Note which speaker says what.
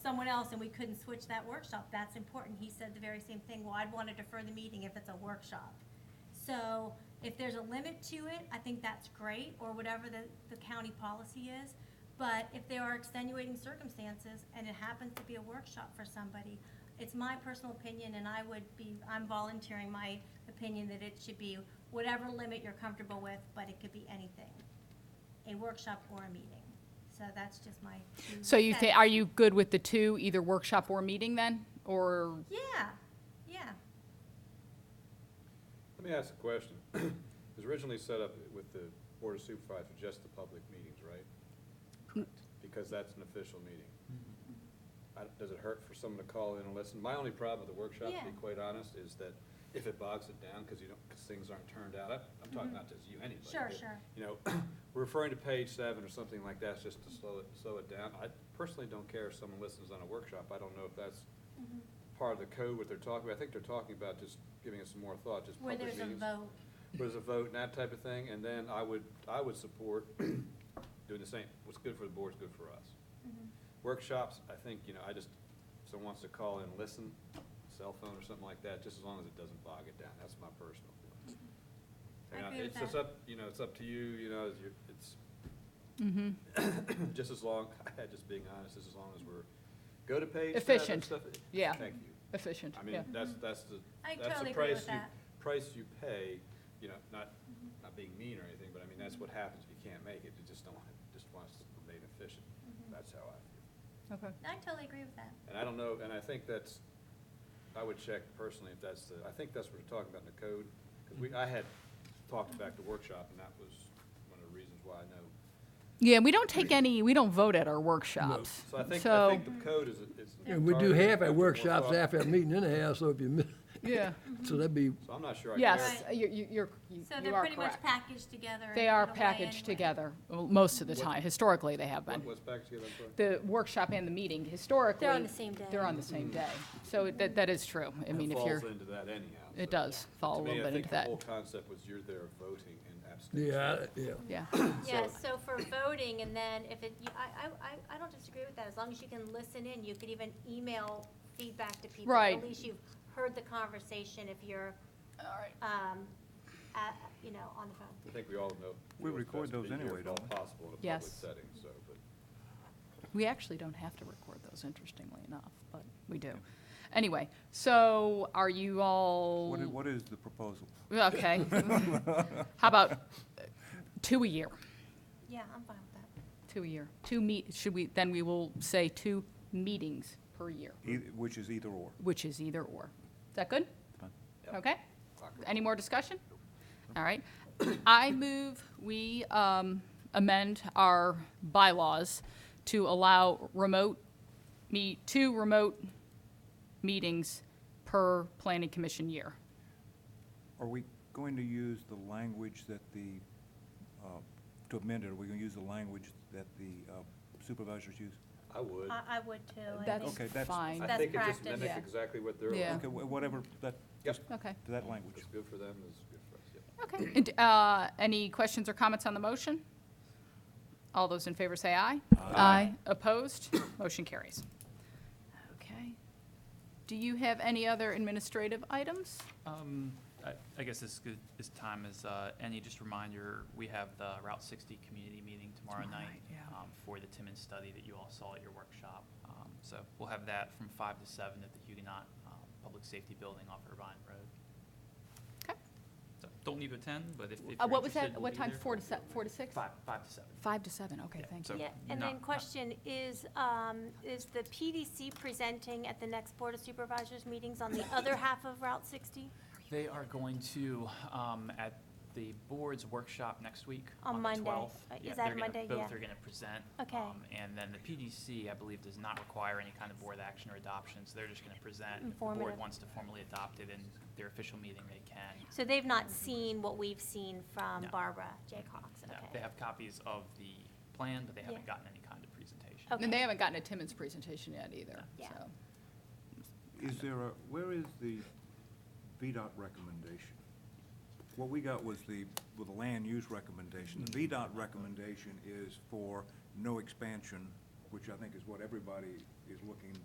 Speaker 1: someone else and we couldn't switch that workshop, that's important. He said the very same thing, well, I'd want to defer the meeting if it's a workshop. So if there's a limit to it, I think that's great, or whatever the, the county policy is. But if there are extenuating circumstances and it happens to be a workshop for somebody, it's my personal opinion and I would be, I'm volunteering my opinion that it should be whatever limit you're comfortable with, but it could be anything. A workshop or a meeting. So that's just my. two
Speaker 2: So you, thi-
Speaker 1: cents.
Speaker 2: are you good with the two, either workshop or meeting then? Or,
Speaker 1: Yeah, yeah.
Speaker 3: Let me ask a question. It was originally set up with the Board of Supervisors, just the public meetings, right? Correct. Because that's an official meeting. I- Does it hurt for someone to call in and listen? My only problem with the workshop, to
Speaker 1: Yeah.
Speaker 3: be quite honest, is that if it bogs it down, because you don't, because things aren't turned out, I- I'm talking not just you, anybody.
Speaker 1: Mm-hmm. Sure,
Speaker 3: but,
Speaker 1: sure.
Speaker 3: You know, referring to page seven or something like that, just to slow it, slow it down. I personally don't care if someone listens on a workshop. I don't know if that's part of the code, what they're talking about. I think they're talking about just giving it some more thought, just
Speaker 1: Where
Speaker 3: public
Speaker 1: there's
Speaker 3: meetings.
Speaker 1: a vote.
Speaker 3: Where there's a vote and that type of thing, and then I would, I would support doing the same. What's good for the board is good for us.
Speaker 1: Mm-hmm.
Speaker 3: Workshops, I think, you know, I just, if someone wants to call in and listen, cell phone or something like that, just as long as it doesn't bog it down. That's my personal feeling.
Speaker 1: Mm-hmm. I
Speaker 3: And I-
Speaker 1: agree with
Speaker 3: It's just
Speaker 1: that.
Speaker 3: up, you know, it's up to you, you know, it's your- it's,
Speaker 2: mhm.
Speaker 3: just as long, just being honest, just as long as we're, go to page seven
Speaker 2: Efficient.
Speaker 3: stuff-
Speaker 2: Yeah.
Speaker 3: Thank you.
Speaker 2: efficient,
Speaker 3: I
Speaker 2: yeah.
Speaker 3: mean, that's, that's the,
Speaker 1: I
Speaker 3: that's
Speaker 1: totally
Speaker 3: the
Speaker 1: agree with
Speaker 3: price you,
Speaker 1: that.
Speaker 3: price you pay, you know, not, not being mean or anything, but I mean, that's what happens if you can't make it, you just don't, wanna- just wants to remain efficient.
Speaker 1: Mm-hmm.
Speaker 3: That's how I feel.
Speaker 2: Okay.
Speaker 1: I totally agree with that.
Speaker 3: And I don't know, and I think that's, I would check personally if that's the, I think that's what we're talking about in the code, because we, I had talked about the workshop, and that was one of the reasons why I know.
Speaker 2: Yeah, we don't take any, we don't vote at our workshops.
Speaker 3: So I think, I
Speaker 2: So,
Speaker 3: think the code is, is.
Speaker 4: And we do
Speaker 3: targeted,
Speaker 4: half our
Speaker 3: more
Speaker 4: workshops
Speaker 3: thought-
Speaker 4: after our meeting anyhow, so if you, miss-
Speaker 2: yeah,
Speaker 4: so that'd be,
Speaker 3: So I'm not sure I care.
Speaker 2: yes, you, you, you're, you
Speaker 1: So
Speaker 2: you
Speaker 1: they're
Speaker 2: are
Speaker 1: pretty much
Speaker 2: correct.
Speaker 1: packaged together. and
Speaker 2: They are
Speaker 1: put away anyway.
Speaker 2: packaged together, well, most of the
Speaker 3: What-
Speaker 2: time. Historically, they have been.
Speaker 3: What- What's back together, I'm sorry?
Speaker 2: The workshop and the meeting, historically.
Speaker 1: the same day.
Speaker 2: They're on the same day. So it- that, that is true. I
Speaker 3: It
Speaker 2: mean, if you're,
Speaker 3: Mm-hmm. Falls into that anyhow.
Speaker 2: it
Speaker 3: so.
Speaker 2: does fall a
Speaker 3: To me,
Speaker 2: little bit into
Speaker 3: I
Speaker 2: that.
Speaker 3: think the whole concept was you're there voting and abstaining.
Speaker 4: yeah, I- yeah.
Speaker 2: Yeah,
Speaker 5: Yeah, so
Speaker 3: So-
Speaker 5: for voting, and then if it, you- I, I, I- I don't disagree with that, as long as you can listen in, you could even email feedback to people.
Speaker 2: Right.
Speaker 5: At least you've heard the conversation if you're, um, at, you know, on the phone.
Speaker 3: I think we all know.
Speaker 6: We
Speaker 3: what's
Speaker 6: record
Speaker 3: best to
Speaker 6: those
Speaker 3: be here
Speaker 6: anyway,
Speaker 3: if all
Speaker 6: don't we?
Speaker 3: Possible in a public
Speaker 2: Yes.
Speaker 3: setting, so, but.
Speaker 2: we actually don't have to record those, interestingly enough, but we do. Anyway, so are you all?
Speaker 6: What i- What is the proposal?
Speaker 2: Okay. How about uh, two a year?
Speaker 5: Yeah, I'm fine with that.
Speaker 2: Two a year. Two meet, should we, then we will say two meetings per year,
Speaker 6: Eith- e, Which is either or.
Speaker 2: which is either or. Is that good?
Speaker 6: Fine.
Speaker 3: Yep.
Speaker 2: Okay?
Speaker 3: Clock it.
Speaker 2: Any more discussion? All right. I move we um, amend our bylaws to allow remote, meet, two remote meetings per planning commission year.
Speaker 6: Are we going to use the language that the, uh, to amend it, are we going to use the language that the uh, supervisors use?
Speaker 3: I would.
Speaker 1: I, I would too. I
Speaker 2: That's
Speaker 1: think.
Speaker 6: Okay, that's-
Speaker 2: fine.
Speaker 3: I think it just
Speaker 1: practice.
Speaker 3: mimics
Speaker 2: Yeah.
Speaker 3: exactly what they're.
Speaker 2: Yeah.
Speaker 6: Okay, wh- whatever, that,
Speaker 3: Yep.
Speaker 6: just
Speaker 2: Okay.
Speaker 6: to that language.
Speaker 3: It's good for them, it's good for us, yeah.
Speaker 2: Okay. And, uh, Any questions or comments on the motion? All those in favor say aye.
Speaker 6: Uh,
Speaker 2: Aye. Opposed? Motion carries. Okay. Do you have any other administrative items?
Speaker 7: Um, I, I guess this, good- this time is, uh, any just reminder, we have the Route sixty community meeting tomorrow
Speaker 2: Tomorrow
Speaker 7: night.
Speaker 2: night, yeah.
Speaker 7: um, For the Timmins study that you all saw at your workshop. Um, so we'll have that from five to seven at the Huguenot, um, Public Safety Building off Irvine Road.
Speaker 2: Okay.
Speaker 7: So don't need to attend, but if, if
Speaker 2: Uh,
Speaker 7: you're
Speaker 2: What was
Speaker 7: interested,
Speaker 2: that, what
Speaker 7: we'll be
Speaker 2: time,
Speaker 7: there.
Speaker 2: four to se, four to six?
Speaker 7: Five, five to seven.
Speaker 2: Five to seven, okay,
Speaker 7: Yeah,
Speaker 2: thank
Speaker 7: so-
Speaker 2: you.
Speaker 5: Yeah, and
Speaker 7: not-
Speaker 5: then
Speaker 7: not-
Speaker 5: question, is, um, is the PDC presenting at the next Board of Supervisors meetings on the other half of Route sixty?
Speaker 7: They are going to, um, at the board's workshop next week.
Speaker 5: On
Speaker 7: the
Speaker 5: Monday.
Speaker 7: 12th.
Speaker 5: Uh,
Speaker 7: Yeah,
Speaker 5: is that
Speaker 7: they're gonna-
Speaker 5: Monday?
Speaker 7: Both
Speaker 5: Yeah.
Speaker 7: are gonna present.
Speaker 5: Okay.
Speaker 7: um, And then the PDC, I believe, does not require any kind of board action or adoption, so they're just gonna present. If the board
Speaker 5: Informative.
Speaker 7: wants to formally adopt it in their official meeting, they can.
Speaker 5: So they've not seen what we've seen from
Speaker 7: No.
Speaker 5: Barbara J. Cox,
Speaker 7: No,
Speaker 5: okay.
Speaker 7: They have copies of the plan, but they haven't
Speaker 5: Yeah.
Speaker 7: gotten any kind of presentation.
Speaker 5: Okay.
Speaker 2: And they haven't gotten a Timmons presentation yet either,
Speaker 5: Yeah.
Speaker 2: so.
Speaker 6: Is there a, where is the VDOT recommendation? What we got was the, with the land use recommendation. The VDOT recommendation is for no expansion which I think is what everybody is looking